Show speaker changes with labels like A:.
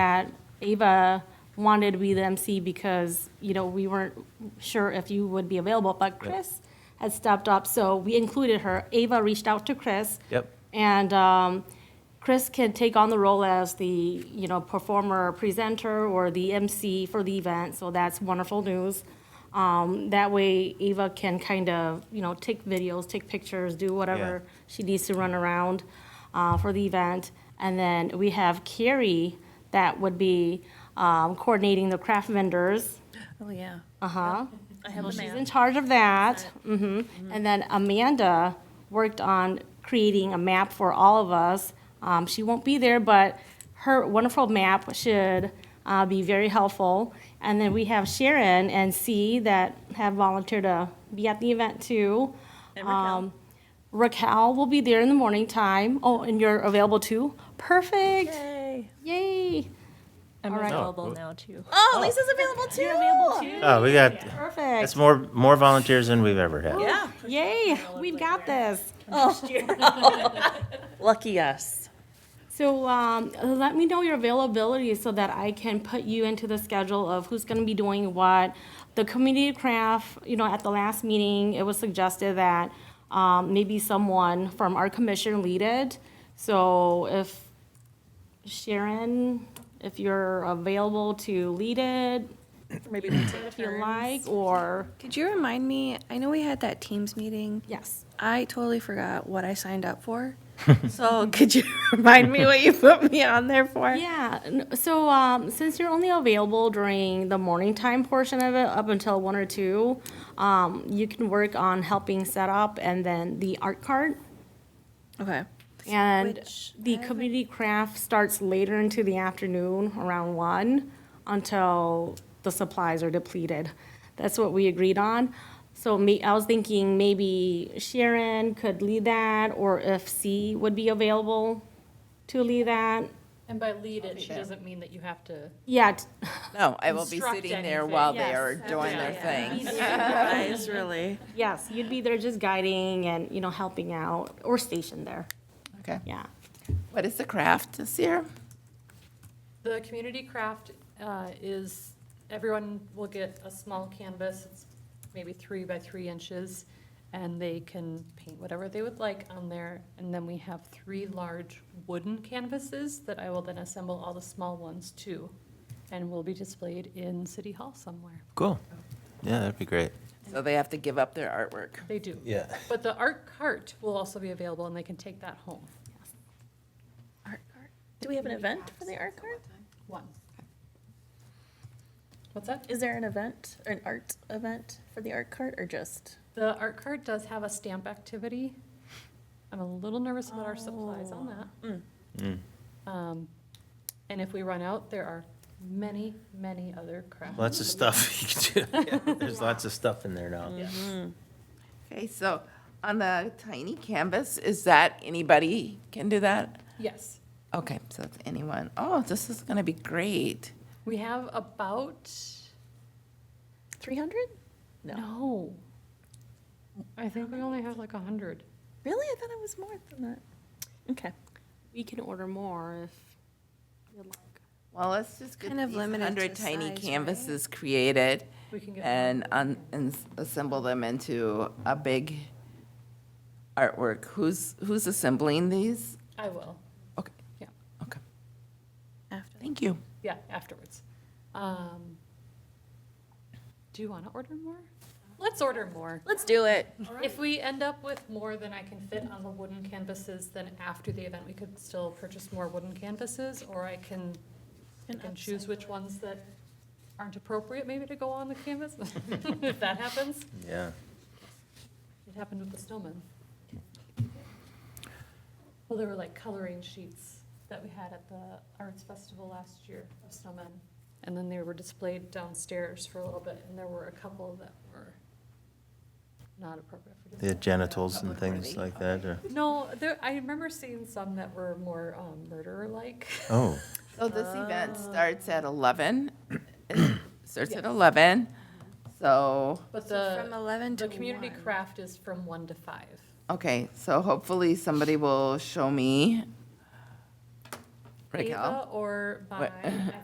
A: that Ava wanted to be the MC because, you know, we weren't sure if you would be available, but Chris had stepped up, so we included her. Ava reached out to Chris.
B: Yep.
A: And um, Chris can take on the role as the, you know, performer, presenter, or the MC for the event, so that's wonderful news. Um, That way Ava can kind of, you know, take videos, take pictures, do whatever she needs to run around uh, for the event. And then we have Carrie that would be um, coordinating the craft vendors.
C: Oh, yeah.
A: Uh-huh.
C: I have
A: Well,
C: the
A: She's
C: map.
A: in charge of that. hmm And then Amanda worked on creating a map for all of us. Um, she won't be there, but her wonderful map should uh, be very helpful. And then we have Sharon and C that have volunteered to be at the event too.
C: And Raquel.
A: Um, Raquel will be there in the morning time. Oh, and you're available too? Perfect.
C: Yay.
A: Yay.
C: I'm
A: All right.
C: available
B: Oh.
C: now, too. Oh, Lisa's available, too. You're
A: Available too?
B: Oh, we got, that's
A: Perfect.
B: more, more volunteers than we've ever had.
C: Yeah.
A: Yay, we've got this.
C: Lucky us.
A: So um, let me know your availability so that I can put you into the schedule of who's going to be doing what. The community craft, you know, at the last meeting, it was suggested that um, maybe someone from our commission lead it. So if Sharon, if you're available to lead it,
C: Maybe we take
A: if you
C: turns.
A: like, or
D: Could you remind me? I know we had that Teams meeting.
A: yes.
D: I totally forgot what I signed up for. so could you remind me what you put me on there for?
A: Yeah, n- so um, since you're only available during the morning time portion of it, up until one or two, um, you can work on helping set up and then the art cart.
D: Okay.
A: And
D: Which
A: the community craft starts later into the afternoon, around one, until the supplies are depleted. That's what we agreed on. So me, I was thinking maybe Sharon could lead that, or if C would be available to lead that.
E: And by lead it, she doesn't mean that you have to.
A: Yeah, t-
F: No, I will be
E: Construct
F: sitting there
E: anything.
F: while they
A: Yes.
F: are doing their thing.
D: Guys, really.
A: Yes, you'd be there just guiding and, you know, helping out, or stationed there,
F: Okay.
A: yeah.
F: What is the craft this year?
E: The community craft uh, is, everyone will get a small canvas, it's maybe three by three inches, and they can paint whatever they would like on there. And then we have three large wooden canvases that I will then assemble all the small ones to, and will be displayed in City Hall somewhere.
B: Cool. Yeah, that'd be great.
F: So they have to give up their artwork.
E: They do.
B: Yeah.
E: But the art cart will also be available, and they can take that home.
C: Do we have an event for the art card?
E: One. What's that?
C: Is there an event, an art event for the art card, or just?
E: The art card does have a stamp activity. I'm a little nervous about our supplies on that. Mm. Um, And if we run out, there are many, many other crafts.
B: Lots of stuff you can do. Yeah, There's lots of stuff in there now.
F: Okay, so on the tiny canvas, is that anybody can do that?
E: Yes,
F: Okay, so it's anyone. Oh, this is gonna be great.
E: we have about,
C: Three hundred?
E: no. I think we only have like a hundred.
C: Really? I thought it was more than that. Okay.
A: We can order more if you'd like.
F: Well, let's just get
D: Kind of
F: these
D: limited
F: hundred
D: to
F: tiny
D: size, right?
F: canvases created
E: We can get.
F: and un- and s- assemble them into a big artwork. Who's, who's assembling these?
E: I will,
F: Okay,
E: yeah.
F: okay,
D: After.
F: thank you.
E: Yeah, afterwards. Um, Do you want to order more? Let's order more.
C: Let's do it.
E: If we end up with more than I can fit on the wooden canvases, then after the event, we could still purchase more wooden canvases, or I can, I can choose which ones that aren't appropriate maybe to go on the canvas, if that happens.
B: Yeah.
E: It happened with the snowman. Well, there were like coloring sheets that we had at the arts festival last year of snowmen. And then they were displayed downstairs for a little bit, and there were a couple that were not appropriate for display.
B: They had genitals and things like that. or-
E: No, there, I remember seeing some that were more um, murderer-like.
B: Oh,
F: So this event starts at 11, starts at 11, so,
E: But
D: from
E: the,
D: 11 to
E: the community
D: 1.
E: craft is from one to five.
F: okay, so hopefully somebody will show me
E: Ava
F: Raquel?
E: or by